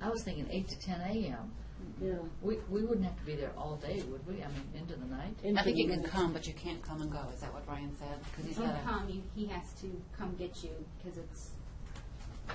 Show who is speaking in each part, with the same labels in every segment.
Speaker 1: I was thinking eight to ten AM.
Speaker 2: Yeah.
Speaker 1: We, we wouldn't have to be there all day, would we? I mean, into the night?
Speaker 2: Into
Speaker 3: I think
Speaker 2: the
Speaker 3: you can
Speaker 2: minutes.
Speaker 3: come, but you can't come and go. Is that what Brian said? Because he's
Speaker 4: If you
Speaker 3: got a,
Speaker 4: come, you, he has to come get you, because it's,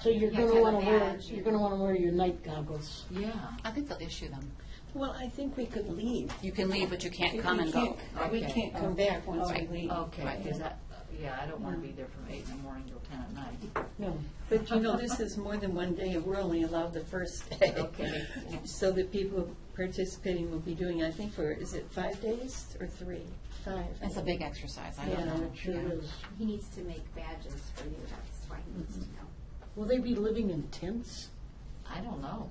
Speaker 2: So you're
Speaker 4: You have to
Speaker 2: gonna
Speaker 4: have a
Speaker 2: wanna wear,
Speaker 4: badge.
Speaker 2: you're gonna wanna wear your night goggles.
Speaker 1: Yeah.
Speaker 3: I think they'll issue them.
Speaker 5: Well, I think we could leave.
Speaker 3: You can leave, but you can't
Speaker 5: We
Speaker 3: come and go.
Speaker 5: can't- We
Speaker 1: Okay. Oh,
Speaker 5: can't come back once we
Speaker 3: Right.
Speaker 5: leave.
Speaker 1: Okay,
Speaker 3: Right.
Speaker 1: because I, yeah, I don't want to be there from eight in the morning till ten at night.
Speaker 2: No.
Speaker 5: But you know, this is more than one day, we're only allowed the first day.
Speaker 1: Okay.
Speaker 5: So the people participating will be doing, I think, for, is it five days or three? Five.
Speaker 3: It's a big exercise. I don't
Speaker 5: Yeah,
Speaker 3: know.
Speaker 5: it sure
Speaker 3: Yeah.
Speaker 5: is.
Speaker 4: he needs to make badges for you, that's why he needs to
Speaker 3: Mm-hmm.
Speaker 4: know.
Speaker 2: Will they be living in tents?
Speaker 1: I don't know.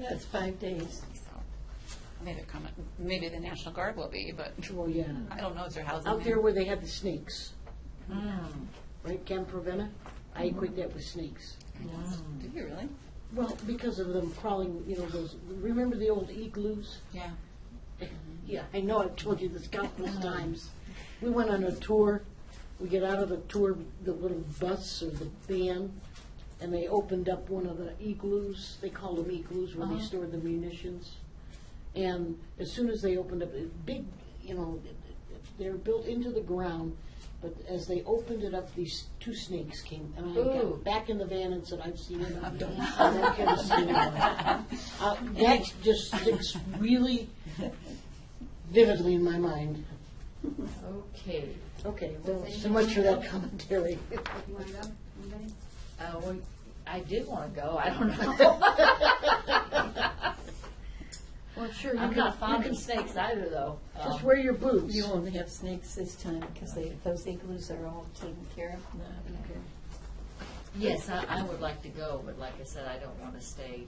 Speaker 5: Yeah, it's five days.
Speaker 3: So, Maybe come, maybe the National Guard will be, but
Speaker 2: Well, yeah.
Speaker 3: I don't know. Is there housing?
Speaker 2: Out
Speaker 3: there?
Speaker 2: there where they had the snakes,
Speaker 1: Mm,
Speaker 2: right, Camp Ravenna? I equate that with snakes.
Speaker 3: Do you really?
Speaker 2: Well, because of them crawling, you know, those, remember the old igloos?
Speaker 3: Yeah.
Speaker 2: Yeah, I know, I've told you this countless times. We went on a tour, we get out of the tour, the little bus or the van, and they opened up one of the igloos, they called them igloos where they stored the munitions. And as soon as they opened up, it big, you know, it- it- they're built into the ground, but as they opened it up, these two snakes came, and I
Speaker 1: Ooh.
Speaker 2: got back in the van and said, I've seen it, I don't, I don't care to see it. Uh, That just sticks really vividly in my mind.
Speaker 1: okay.
Speaker 2: Okay, well, so much for that commentary.
Speaker 4: You wanna go, anybody?
Speaker 1: Uh, well, I did want to go, I don't know.
Speaker 2: Well, sure,
Speaker 1: I'm not fond of snakes either, though.
Speaker 2: Just
Speaker 1: Um,
Speaker 2: wear your boots.
Speaker 5: You won't have snakes this time because they, those igloos are all taken care of now.
Speaker 1: Yes, I, I would like to go, but like I said, I don't want to stay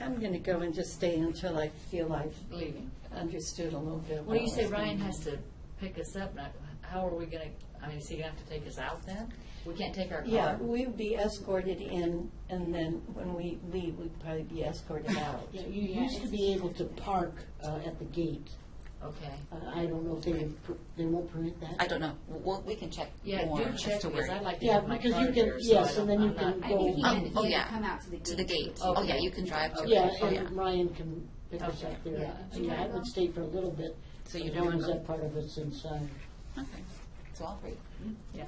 Speaker 5: I'm gonna go and just stay until I feel I've
Speaker 1: leaving.
Speaker 5: understood a little bit.
Speaker 1: Well, you
Speaker 5: what
Speaker 1: say
Speaker 5: was
Speaker 1: Ryan
Speaker 5: going
Speaker 1: has to pick us up, and I- how are we gonna, I mean, is he gonna have to take us out then? We can't take our
Speaker 5: on. Yeah,
Speaker 1: car?
Speaker 5: we would be escorted in and then when we leave, we'd probably be escorted out.
Speaker 2: Yeah, You used to be able to park uh, at the gate.
Speaker 1: Okay.
Speaker 2: Uh, I don't know if they, they won't permit that.
Speaker 3: I don't know. We'll, we can check
Speaker 1: Yeah,
Speaker 3: more
Speaker 1: do
Speaker 3: as
Speaker 1: check,
Speaker 3: to
Speaker 1: because
Speaker 3: where.
Speaker 1: I'd like to
Speaker 2: Yeah,
Speaker 1: have my
Speaker 2: because
Speaker 1: car
Speaker 2: you can-
Speaker 1: here, so I
Speaker 2: yes, and
Speaker 1: don't,
Speaker 2: then you
Speaker 1: I'm not.
Speaker 2: can
Speaker 4: I think he
Speaker 3: Oh,
Speaker 4: had,
Speaker 3: oh,
Speaker 4: he had
Speaker 3: yeah.
Speaker 4: to come out to the gate.
Speaker 3: To the gate.
Speaker 1: Okay.
Speaker 3: Oh, yeah, you can drive to.
Speaker 2: Yeah,
Speaker 3: Oh, yeah.
Speaker 2: and Ryan can pick us
Speaker 1: Okay.
Speaker 2: up there.
Speaker 4: Yeah.
Speaker 2: Yeah, I would stay for a little bit.
Speaker 3: So
Speaker 2: as
Speaker 3: you don't
Speaker 2: long
Speaker 3: wanna
Speaker 2: as
Speaker 3: go?
Speaker 2: that part of it's inside.
Speaker 3: Okay. So all three.
Speaker 1: Yeah.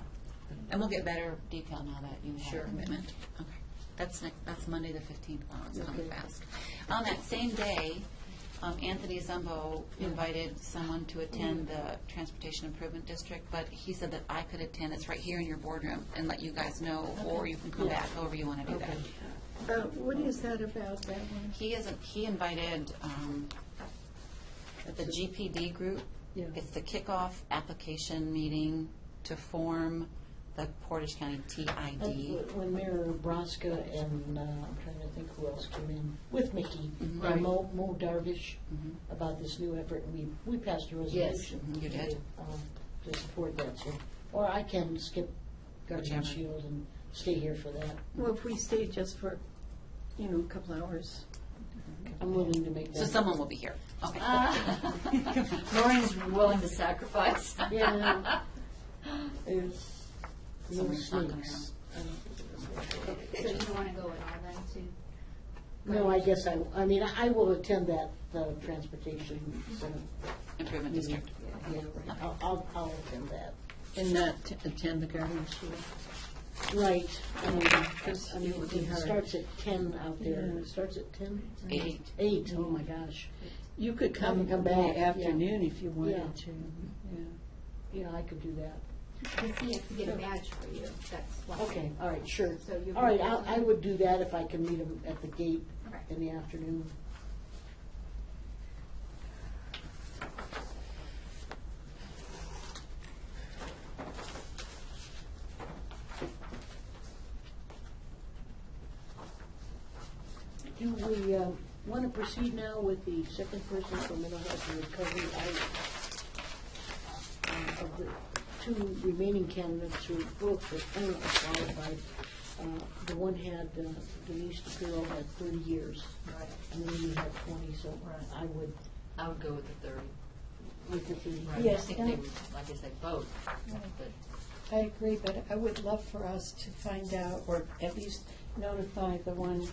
Speaker 3: And we'll get better detail now that you have
Speaker 1: Sure.
Speaker 3: a commitment. Okay. That's next, that's Monday, the fifteenth. Wow, it's coming
Speaker 2: Okay.
Speaker 3: fast. On that same day, um, Anthony Zumbo invited someone to attend the Transportation Improvement District, but he said that I could attend. It's right here in your boardroom and let you guys know, or you can come back, however you want to do that.
Speaker 5: Uh, What is that about, that one?
Speaker 3: He is, he invited um, the GPD group.
Speaker 2: Yeah.
Speaker 3: It's the kickoff application meeting to form the Portage County
Speaker 2: Uh,
Speaker 3: TID.
Speaker 2: When Mayor Braska and, uh, I'm trying to think who else came in, with Mickey,
Speaker 3: Mm-hmm.
Speaker 1: Right.
Speaker 2: and Mo Mo Darvish, about this new effort, and we, we passed a resolution.
Speaker 3: Mm-hmm. You did.
Speaker 2: um, To support that, so, or I can skip Guardian
Speaker 3: Whichever.
Speaker 2: Shield and stay here for that.
Speaker 5: Well, if we stay just for, you know, a couple hours.
Speaker 2: I'm willing to make that.
Speaker 3: So someone will be here. Okay.
Speaker 1: Ah. Maureen's willing to sacrifice.
Speaker 2: Yeah. There's no
Speaker 3: Someone's not gonna
Speaker 2: snakes.
Speaker 4: So you don't wanna go at all then, too?
Speaker 2: No, I guess I, I mean, I will attend that, the transportation, center.
Speaker 3: Improvement District.
Speaker 2: yeah, I'll, I'll, I'll attend that.
Speaker 5: And not to attend the garden show.
Speaker 2: Right, um,
Speaker 5: Because
Speaker 2: I mean, it starts at ten out there, it starts at ten?
Speaker 3: Eight.
Speaker 2: Eight, oh my gosh.
Speaker 5: You could come
Speaker 2: Come- come
Speaker 5: in
Speaker 2: back,
Speaker 5: the
Speaker 2: yeah.
Speaker 5: afternoon if you
Speaker 2: Yeah.
Speaker 5: wanted to. Yeah.
Speaker 2: Yeah, I could do that.
Speaker 4: Because he has to get a badge for you, that's why.
Speaker 2: Okay, all right, sure.
Speaker 4: So you'll be
Speaker 2: All right,
Speaker 4: there
Speaker 2: I, I
Speaker 4: then?
Speaker 2: would do that if I can meet him at the gate
Speaker 4: Okay.
Speaker 2: in the afternoon. Do we want to proceed now with the second person for mental health and recovery? I, uh, Of the two remaining candidates who both were unqualified, uh, the one had, uh, Denise DePiro had thirty years,
Speaker 1: Right.
Speaker 2: and then you had twenty, so I would,
Speaker 1: I would go with the thirty.
Speaker 2: with the thirty.
Speaker 1: Right.
Speaker 6: Yes,
Speaker 1: I think they
Speaker 6: and-
Speaker 1: would, like I said, both, but
Speaker 5: I agree, but I would love for us to find out, or at least notify the one